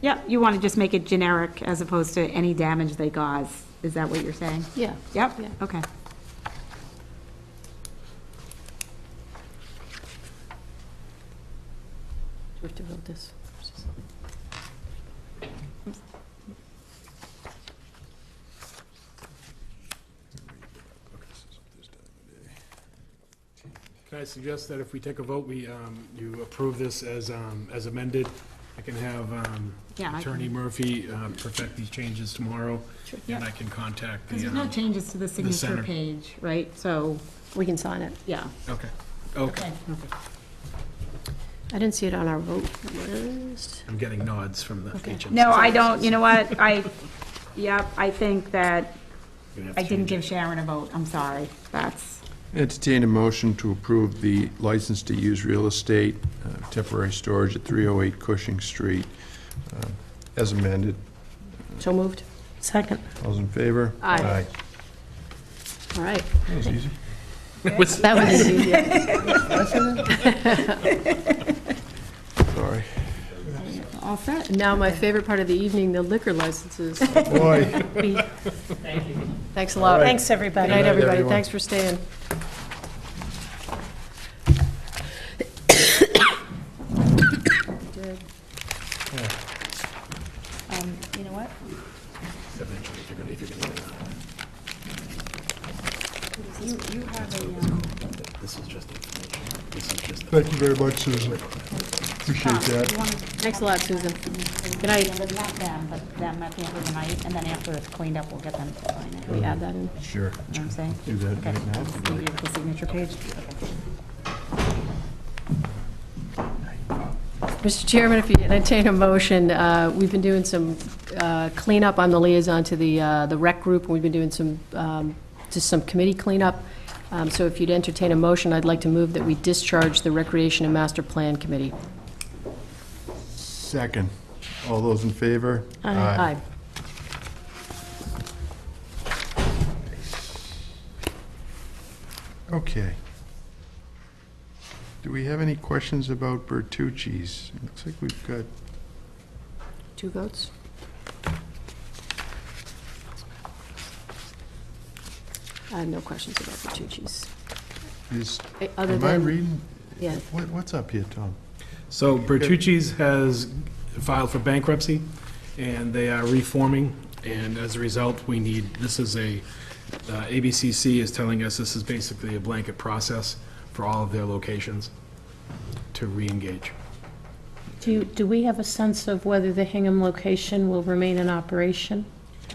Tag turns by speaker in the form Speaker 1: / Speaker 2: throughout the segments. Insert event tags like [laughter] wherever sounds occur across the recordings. Speaker 1: Yeah, you want to just make it generic as opposed to any damage they cause. Is that what you're saying?
Speaker 2: Yeah.
Speaker 1: Yep,
Speaker 2: Yeah.
Speaker 1: okay.
Speaker 2: We have to vote this.
Speaker 3: Can I suggest that if we take a vote, we, um, you approve this as, um, as amended? I can have um,
Speaker 1: Yeah, I
Speaker 3: Attorney Murphy um, perfect these changes tomorrow,
Speaker 2: Sure.
Speaker 3: and I can contact
Speaker 1: Because
Speaker 3: the,
Speaker 1: there's no
Speaker 3: um,
Speaker 1: changes to the signature
Speaker 3: center.
Speaker 1: page, right? So,
Speaker 2: We can sign it.
Speaker 1: yeah.
Speaker 3: okay, okay.
Speaker 2: I didn't see it on our vote list.
Speaker 3: I'm getting nods from the
Speaker 2: Okay.
Speaker 3: HMC.
Speaker 1: No, I don't, you know what, I, yep, I think that,
Speaker 3: You have to
Speaker 1: I didn't
Speaker 3: change
Speaker 1: give
Speaker 3: it.
Speaker 1: Sharon a vote, I'm sorry. That's,
Speaker 4: Entertain a motion to approve the license to use real estate, uh, temporary storage at 308 Cushing Street, uh, as amended.
Speaker 2: So moved. Second.
Speaker 4: All's in favor?
Speaker 2: Aye. All right.
Speaker 4: That was easy.
Speaker 3: What's-
Speaker 2: That was easy. [laughs]
Speaker 4: Sorry.
Speaker 2: All set. Now, my favorite part of the evening, the liquor licenses.
Speaker 4: Boy.
Speaker 2: Thanks a lot.
Speaker 5: Thanks,
Speaker 2: Good
Speaker 5: everybody.
Speaker 2: night,
Speaker 4: night,
Speaker 2: everybody.
Speaker 4: everyone.
Speaker 2: Thanks for staying.
Speaker 5: Um, You know what?
Speaker 1: um,
Speaker 4: Thank you very much, Susan. Appreciate that.
Speaker 2: Thanks a lot, Susan. Good night.
Speaker 1: not them, but them at the end of the night, and then after it's cleaned up, we'll get them to sign it. You
Speaker 2: We add that in.
Speaker 1: know
Speaker 4: Sure.
Speaker 1: what I'm saying?
Speaker 4: Do that
Speaker 1: Okay.
Speaker 4: right now.
Speaker 1: Give you the signature page.
Speaker 2: Mr. Chairman, if you entertain a motion, uh, we've been doing some uh, cleanup. I'm the liaison to the uh, the rec group, and we've been doing some, um, just some committee cleanup. Um, So if you'd entertain a motion, I'd like to move that we discharge the Recreation and Master Plan Committee.
Speaker 4: Second. All those in favor?
Speaker 2: Aye.
Speaker 4: Okay. Do we have any questions about Bertucci's? Looks like we've got
Speaker 2: Two votes? I have no questions about the Tucci's.
Speaker 4: Is,
Speaker 2: Eh, other
Speaker 4: am I
Speaker 2: than-
Speaker 4: reading?
Speaker 2: Yeah.
Speaker 4: What, what's up here, Tom?
Speaker 3: So Bertucci's has filed for bankruptcy, and they are reforming, and as a result, we need, this is a, uh, ABCC is telling us this is basically a blanket process for all of their locations to reengage.
Speaker 5: Do, do we have a sense of whether the Hingham location will remain in operation?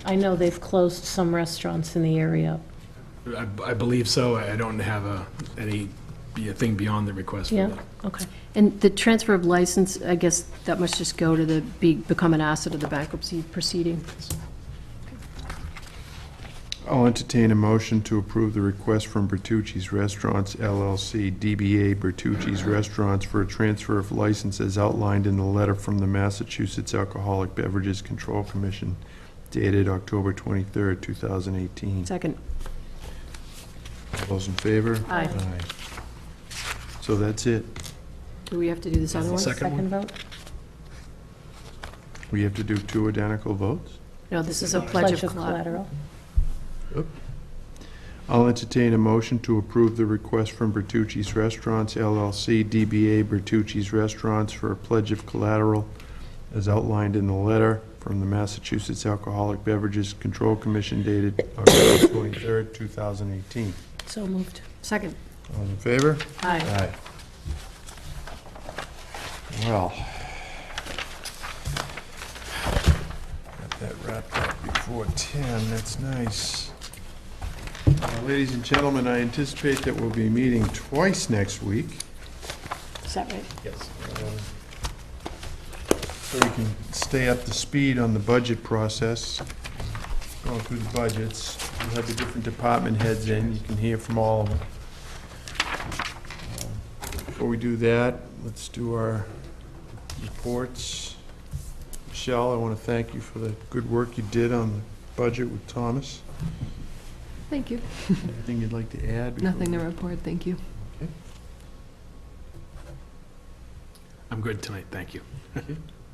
Speaker 5: I know they've closed some restaurants in the area.
Speaker 3: I I believe so. I don't have a, any, be a thing beyond the request for
Speaker 5: Yeah,
Speaker 3: that.
Speaker 5: okay.
Speaker 2: And the transfer of license, I guess that must just go to the, be- become an asset of the bankruptcy proceeding.
Speaker 4: I'll entertain a motion to approve the request from Bertucci's Restaurants LLC, DBA Bertucci's Restaurants for a transfer of license as outlined in the letter from the Massachusetts Alcoholic Beverages Control Commission dated October 23rd, 2018.
Speaker 2: Second.
Speaker 4: All Those in favor?
Speaker 2: Aye.
Speaker 4: So that's it.
Speaker 2: Do we have to do this other
Speaker 3: The
Speaker 2: one?
Speaker 3: second one?
Speaker 5: vote?
Speaker 4: We have to do two identical votes?
Speaker 2: No, this is a pledge of collateral.
Speaker 4: I'll entertain a motion to approve the request from Bertucci's Restaurants LLC, DBA Bertucci's Restaurants for a pledge of collateral as outlined in the letter from the Massachusetts Alcoholic Beverages Control Commission dated October 23rd, 2018.
Speaker 5: So moved.
Speaker 2: Second.
Speaker 4: All in favor?
Speaker 2: Aye.
Speaker 4: Aye. Well. Got that wrapped up before 10, that's nice. Uh, Ladies and gentlemen, I anticipate that we'll be meeting twice next week,
Speaker 5: Is that right?
Speaker 3: Yes.
Speaker 4: um, so we can stay up to speed on the budget process, going through the budgets. We'll have the different department heads in, you can hear from all of them. Before we do that, let's do our reports. Michelle, I want to thank you for the good work you did on the budget with
Speaker 6: [laughs]
Speaker 4: Thomas.
Speaker 6: Thank you.
Speaker 4: Anything you'd like to add? before
Speaker 6: Nothing to
Speaker 4: we-
Speaker 6: report, thank you.
Speaker 3: I'm good tonight, thank you.